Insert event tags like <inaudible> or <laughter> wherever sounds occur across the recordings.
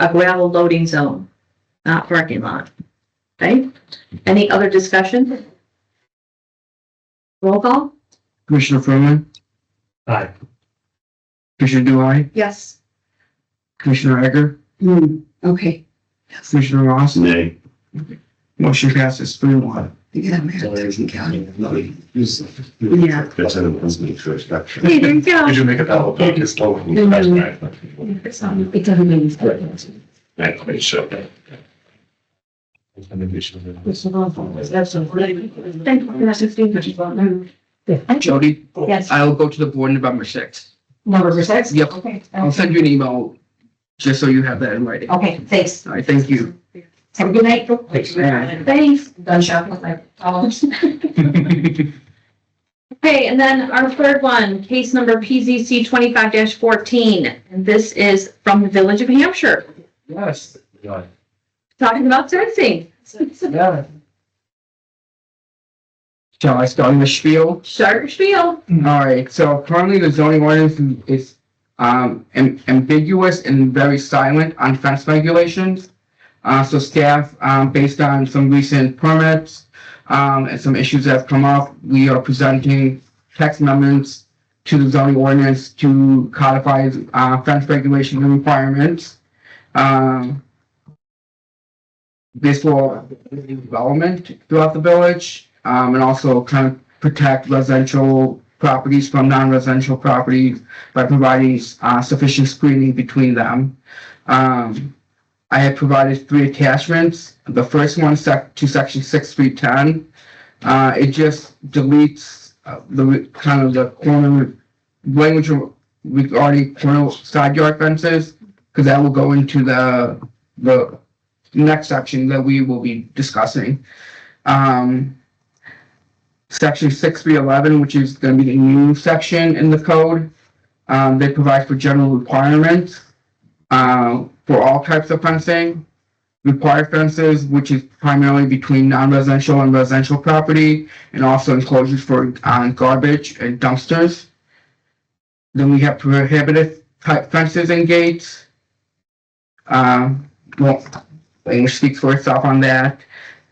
a gravel loading zone, not parking lot. Okay, any other discussion? Roll call? Commissioner Furman, Aye. Commissioner Dwyer, Yes. Commissioner Egger, okay, Commissioner Ross. Nay. Motion passes three one. yeah, man, I can count. Yeah. That's an impossible introduction. Hey, there you go. Could you make a double pick? It's low. It doesn't mean. it's- Right, make sure. It's awful. That's a really- Thank you. That's a thing that you don't know. Jody, Yes, I will go to the board November sixth. November sixth? Yep. Okay. I'll send you an email, just so you have that in writing. All Okay, thanks. right, thank you. Have a good night. Thanks. Thanks. Done shopping with my problems. Okay, and then our third one, case number PZC twenty-five fourteen, and this is from the Village of Hampshire, Yes, talking about fencing. <laughs> yeah. Shall I start the spiel? Shark spiel. Mm-hmm. All right, so currently the zoning ordinance is um, am- ambiguous and very silent on fence regulations. Uh, So staff, um, based on some recent permits um, and some issues that have come up, we are presenting text amendments to the zoning ordinance to codify uh, fence regulation and requirements. Um, This will development throughout the village um, and also kind of protect residential properties from non-residential properties by providing uh, sufficient screening between them. Um, I have provided three attachments. The first one sec- to section six three ten. Uh, it just deletes uh, the re- kind of the corner language regarding corner side yard fences because that will go into the the next section that we will be discussing. Um, section six three eleven, which is gonna be the new section in the code. Um, they provide for general requirements, uh, for all types of fencing. Required fences, which is primarily between non-residential and residential property, and also enclosures for, um, garbage and dumpsters. Then we have prohibited type fences and gates. Um, well, language speaks for itself on that.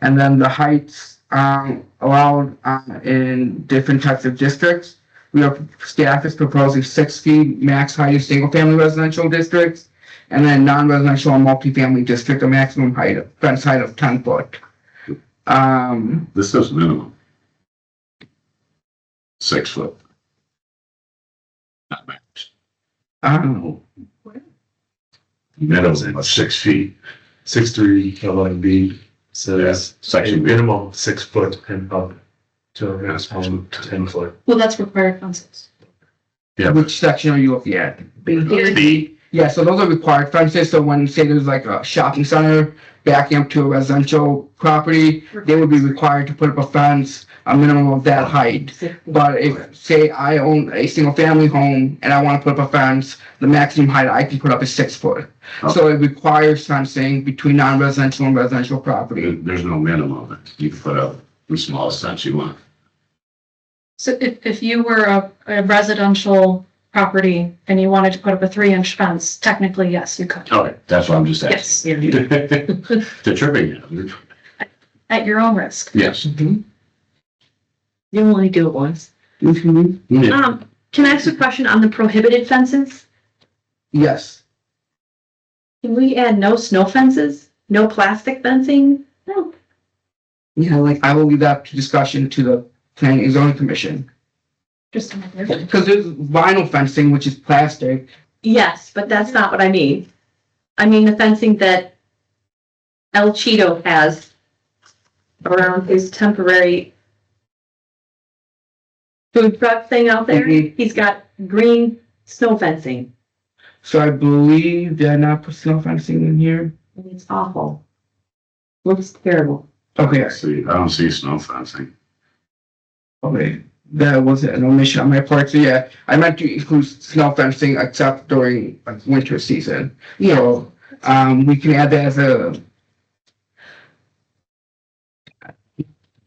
And then the heights um, allowed um, in different types of districts. We have, staff is proposing six feet max height of single-family residential districts, and then non-residential and multifamily district, a maximum height of, fence height of ten foot. Um, This is minimum. Six foot. Not max. um, Minimum of six feet. six three eleven B says a Section. minimum six foot and up to a maximum ten foot. Well, that's required fences. Yeah. which section are you looking at? B. Yeah, so those are required fences, so when, say there's like a shopping center backing up to a residential property, they would be required to put up a fence, a minimum of that height. But if, say, I own a single-family home and I want to put up a fence, the maximum height I can put up is six foot. So it requires fencing between non-residential and residential There- property. There's no minimum. You can put up the smallest fence you want. So if, if you were a, a residential property and you wanted to put up a three inch fence, technically, yes, you could. Okay. That's what I'm just asking. Yes, <laughs> The tripping hazard. at your own risk. Yes. Mm-hmm. You only do it once. Yeah. Um, can I ask a question on the prohibited fences? Yes, Can we add no snow fences, no plastic fencing? No. yeah, like, I will leave that to discussion to the planning and zoning commission. Just an idea. Because there's vinyl fencing, which is plastic, Yes, but that's not what I mean. I mean the fencing that El Cheeto has around his temporary food truck thing out there. Mhm. He's got green snow fencing. So I believe they're not personal fencing in here. and It's awful. Looks terrible. <laughs> Okay, See, I don't see snow fencing. okay. That was an omission on my part. So yeah, I meant to include snow fencing except during like winter season. So um, we can add that as a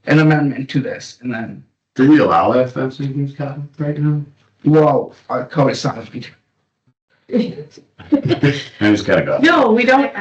an amendment to this and then, Do <laughs> we allow that fencing in Scotland right now? well, our code is not. I just gotta go. No, we don't